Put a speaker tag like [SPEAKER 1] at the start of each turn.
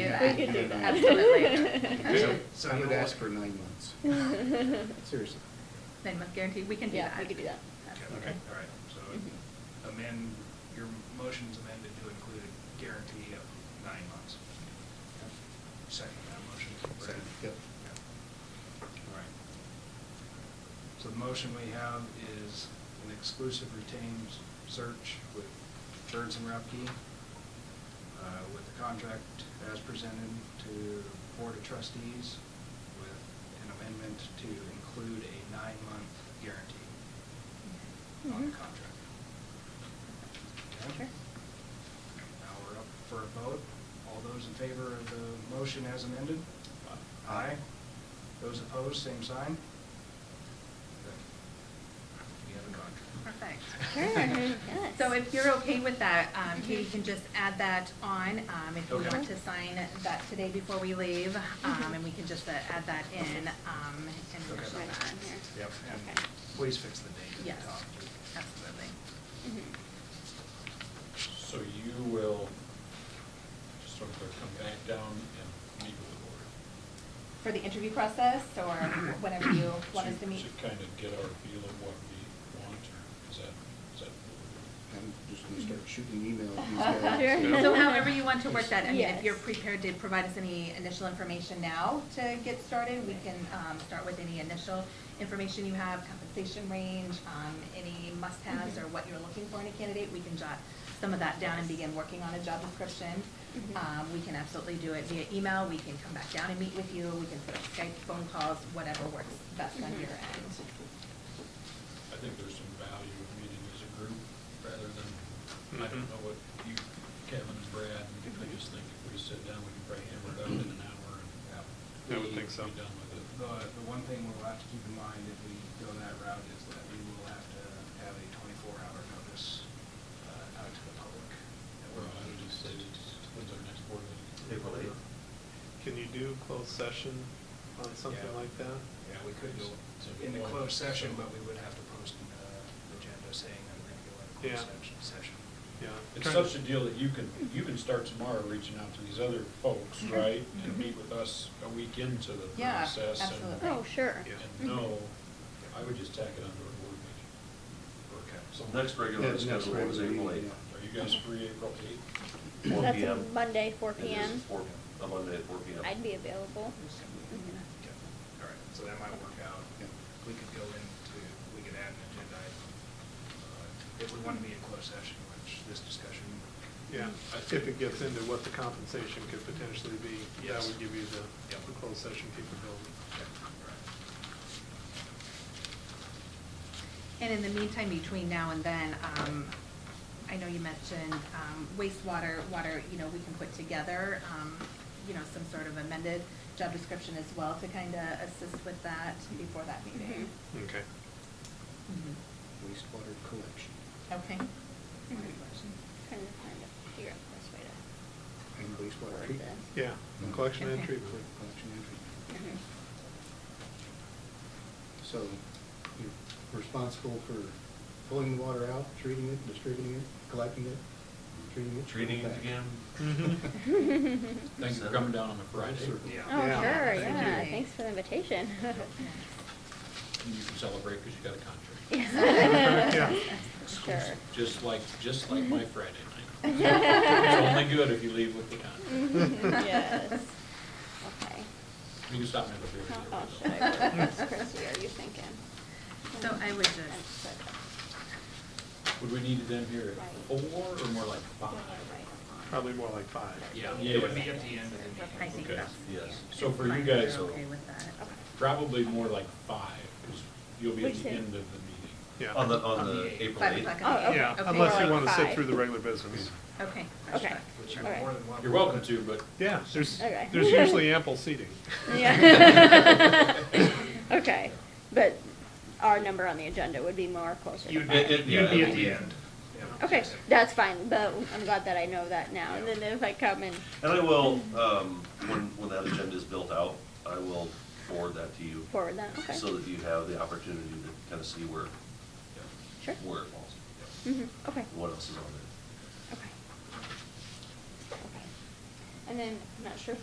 [SPEAKER 1] We could do that. Absolutely.
[SPEAKER 2] So I would ask for nine months.
[SPEAKER 3] Mm-hmm.
[SPEAKER 2] Seriously.
[SPEAKER 1] Nine month guarantee, we can do
[SPEAKER 3] Yeah,
[SPEAKER 1] that. Mm-hmm.
[SPEAKER 3] we could do that.
[SPEAKER 4] Okay, all right, so amend, your motion's amended to include a guarantee of nine months. Second that motion.
[SPEAKER 2] Second, yep.
[SPEAKER 4] Yeah. All right. So the motion we have is an exclusive retained search with Birds and Repke, uh, with the contract as presented to Board of Trustees with an amendment to include a nine-month guarantee on the
[SPEAKER 3] Mhm.
[SPEAKER 4] contract.
[SPEAKER 3] Sure.
[SPEAKER 4] Okay. Now we're up for a vote. All those in favor of the motion as amended? Aye. Those opposed, same sign? We have a contract.
[SPEAKER 1] Perfect.
[SPEAKER 3] Sure, yes.
[SPEAKER 1] So if you're okay with that, um, Katie
[SPEAKER 3] Mhm.
[SPEAKER 1] can just add that on, um, if you
[SPEAKER 4] Okay.
[SPEAKER 1] want to sign that today before we leave, um,
[SPEAKER 3] Mhm.
[SPEAKER 1] and we can just uh, add that in, um, and
[SPEAKER 4] Okay.
[SPEAKER 1] initial
[SPEAKER 3] Right
[SPEAKER 1] that.
[SPEAKER 3] on here.
[SPEAKER 4] Yep, and
[SPEAKER 3] Okay.
[SPEAKER 4] please fix the date at
[SPEAKER 1] Yes,
[SPEAKER 4] the top.
[SPEAKER 1] absolutely.
[SPEAKER 3] Mhm.
[SPEAKER 5] So you will sort of come back down and meet with the board.
[SPEAKER 1] For the interview process, or whenever you want us to meet?
[SPEAKER 5] To kind of get our feel of what we want, or is that, is that?
[SPEAKER 2] I'm just gonna start shooting emails these guys.
[SPEAKER 3] Sure.
[SPEAKER 1] So however you want to work that, I mean, if
[SPEAKER 3] Yes.
[SPEAKER 1] you're prepared to provide us any initial information now to get started, we can um, start with any initial information you have, compensation range, um, any must-haves or what you're looking for in a candidate, we can jot some of that down and begin working on a job description.
[SPEAKER 3] Mhm.
[SPEAKER 1] Um, We can absolutely do it via email, we can come back down and meet with you, we can set up Skype, phone calls, whatever works best on
[SPEAKER 3] Mhm.
[SPEAKER 1] your end.
[SPEAKER 5] I think there's some value of meeting as a group rather than, I don't
[SPEAKER 6] Mm-hmm.
[SPEAKER 5] know what you, Kevin and Brad, I just think if we sit down, we can probably hammer it out in an hour and.
[SPEAKER 6] I would think so.
[SPEAKER 5] Be done with it.
[SPEAKER 4] The, the one thing we'll have to keep in mind if we go that route is that we will have to have a twenty-four hour notice uh, out to the public. that
[SPEAKER 5] Or
[SPEAKER 4] we're
[SPEAKER 5] I would
[SPEAKER 4] meeting.
[SPEAKER 5] just say, when's our next board meeting?
[SPEAKER 6] April eighth. Can you do closed session on something
[SPEAKER 4] Yeah.
[SPEAKER 6] like that?
[SPEAKER 4] Yeah, we could go in the closed session, but we would have to post an uh, agenda saying that we're gonna go in a closed
[SPEAKER 6] Yeah.
[SPEAKER 4] section- session.
[SPEAKER 6] Yeah.
[SPEAKER 5] It's
[SPEAKER 6] Kind of-
[SPEAKER 5] such a deal that you can, you can start tomorrow reaching out to these other folks,
[SPEAKER 3] Mm-hmm.
[SPEAKER 5] right? And meet with us a week into the
[SPEAKER 1] Yeah,
[SPEAKER 5] process. and-
[SPEAKER 1] absolutely.
[SPEAKER 3] Oh, sure.
[SPEAKER 6] Yeah.
[SPEAKER 5] And no, I would just tack it onto a board meeting.
[SPEAKER 4] Okay.
[SPEAKER 5] So
[SPEAKER 7] Next regular
[SPEAKER 2] Yeah, next
[SPEAKER 7] schedule is
[SPEAKER 2] regular
[SPEAKER 7] April
[SPEAKER 2] meeting,
[SPEAKER 7] eighth.
[SPEAKER 5] Are you guys free April eighth?
[SPEAKER 7] four
[SPEAKER 3] That's a
[SPEAKER 7] PM.
[SPEAKER 3] Monday, four
[SPEAKER 7] It is
[SPEAKER 3] PM.
[SPEAKER 7] four- a Monday at four PM.
[SPEAKER 3] I'd be available. Mhm.
[SPEAKER 4] Okay. All right, so that might work out.
[SPEAKER 2] Yeah.
[SPEAKER 4] We could go into, we could add an agenda item. uh, If we want to be in closed session, which this discussion.
[SPEAKER 6] Yeah, if it gets into what the compensation could potentially be, that
[SPEAKER 4] Yes.
[SPEAKER 6] would give you the,
[SPEAKER 4] Yeah.
[SPEAKER 6] the closed session capability.
[SPEAKER 4] Okay, all right.
[SPEAKER 1] And in the meantime, between now and then, um, I know you mentioned, um, wastewater, water, you know, we can put together, um, you know, some sort of amended job description as well to kind of assist with that before that meeting.
[SPEAKER 6] Okay.
[SPEAKER 1] Mhm.
[SPEAKER 2] Mm-hmm. wastewater collection.
[SPEAKER 1] Mm-hmm. Okay.
[SPEAKER 3] Trying to find a- figure out the best way
[SPEAKER 2] And wastewater
[SPEAKER 3] to. word
[SPEAKER 2] treatment.
[SPEAKER 3] this.
[SPEAKER 6] Yeah, collection and
[SPEAKER 1] Okay.
[SPEAKER 6] treatment.
[SPEAKER 2] Collection and treatment.
[SPEAKER 3] Mhm.
[SPEAKER 2] So you're responsible for pulling the water out, treating it, distributing it, collecting it, treating it.
[SPEAKER 7] Treating it
[SPEAKER 2] back.
[SPEAKER 7] again,
[SPEAKER 3] Mm-hmm.
[SPEAKER 6] Mhm.
[SPEAKER 5] Thanks for coming down on a Friday.
[SPEAKER 2] Absolutely.
[SPEAKER 4] Yeah.
[SPEAKER 3] Oh,
[SPEAKER 6] Yeah.
[SPEAKER 3] sure,
[SPEAKER 6] Thank
[SPEAKER 3] yeah,
[SPEAKER 1] you.
[SPEAKER 3] thanks for the invitation.
[SPEAKER 5] And you can celebrate because you got a contract.
[SPEAKER 3] Yeah.
[SPEAKER 6] Yeah.
[SPEAKER 3] Sure.
[SPEAKER 5] Just like, just like my Friday night. It's only good if you leave with the contract.
[SPEAKER 3] Mhm, Yes. Okay.
[SPEAKER 5] You can stop me if you're.
[SPEAKER 3] How
[SPEAKER 1] Oh,
[SPEAKER 3] else should I word this, Chrissy, are you thinking?
[SPEAKER 1] So I would just-
[SPEAKER 5] Would we need them here at four or more like five?
[SPEAKER 6] Probably more like five.
[SPEAKER 5] Yeah.
[SPEAKER 4] It would be at the end of the meeting.
[SPEAKER 1] I think
[SPEAKER 5] Okay,
[SPEAKER 1] that's.
[SPEAKER 7] yes.
[SPEAKER 5] So for you
[SPEAKER 1] Fine, if
[SPEAKER 5] guys,
[SPEAKER 1] you're
[SPEAKER 5] though-
[SPEAKER 1] Okay with that.
[SPEAKER 5] Probably more like five, because you'll be at
[SPEAKER 3] Which
[SPEAKER 5] the
[SPEAKER 3] is-
[SPEAKER 5] end of the meeting.
[SPEAKER 6] Yeah.
[SPEAKER 7] on the,
[SPEAKER 4] On
[SPEAKER 7] on
[SPEAKER 4] the
[SPEAKER 7] the
[SPEAKER 4] eighth.
[SPEAKER 7] April
[SPEAKER 1] Five
[SPEAKER 7] eighth.
[SPEAKER 1] o'clock.
[SPEAKER 3] Oh,
[SPEAKER 1] on the
[SPEAKER 3] okay,
[SPEAKER 6] Yeah,
[SPEAKER 1] eighth.
[SPEAKER 3] okay.
[SPEAKER 6] unless
[SPEAKER 3] More
[SPEAKER 6] you
[SPEAKER 3] like
[SPEAKER 6] want to sit
[SPEAKER 3] five.
[SPEAKER 6] through the regular business.
[SPEAKER 1] Okay.
[SPEAKER 3] Okay.
[SPEAKER 4] Which you're
[SPEAKER 3] All right.
[SPEAKER 4] more than welcome.
[SPEAKER 5] You're welcome to, but
[SPEAKER 6] Yeah, there's,
[SPEAKER 3] Okay.
[SPEAKER 6] there's usually ample seating.
[SPEAKER 3] Yeah. Okay, but our number on the agenda would be more closer to
[SPEAKER 4] You'd
[SPEAKER 3] five.
[SPEAKER 4] be,
[SPEAKER 7] It- it-
[SPEAKER 4] you'd
[SPEAKER 7] yeah,
[SPEAKER 4] be
[SPEAKER 7] it
[SPEAKER 4] at
[SPEAKER 7] would
[SPEAKER 4] the
[SPEAKER 7] be-
[SPEAKER 4] end. Yeah.
[SPEAKER 3] Okay, that's fine, but I'm glad that I know that now, and
[SPEAKER 6] Yeah.
[SPEAKER 3] then if I come and,
[SPEAKER 7] And I will, um, when, when that agenda is built out, I will forward that to you.
[SPEAKER 3] Forward that, okay.
[SPEAKER 7] So that you have the opportunity to kind of see where,
[SPEAKER 3] sure,
[SPEAKER 7] where it falls,
[SPEAKER 3] hmm okay,
[SPEAKER 7] what else is on there.
[SPEAKER 3] okay. Okay. And then, I'm not sure if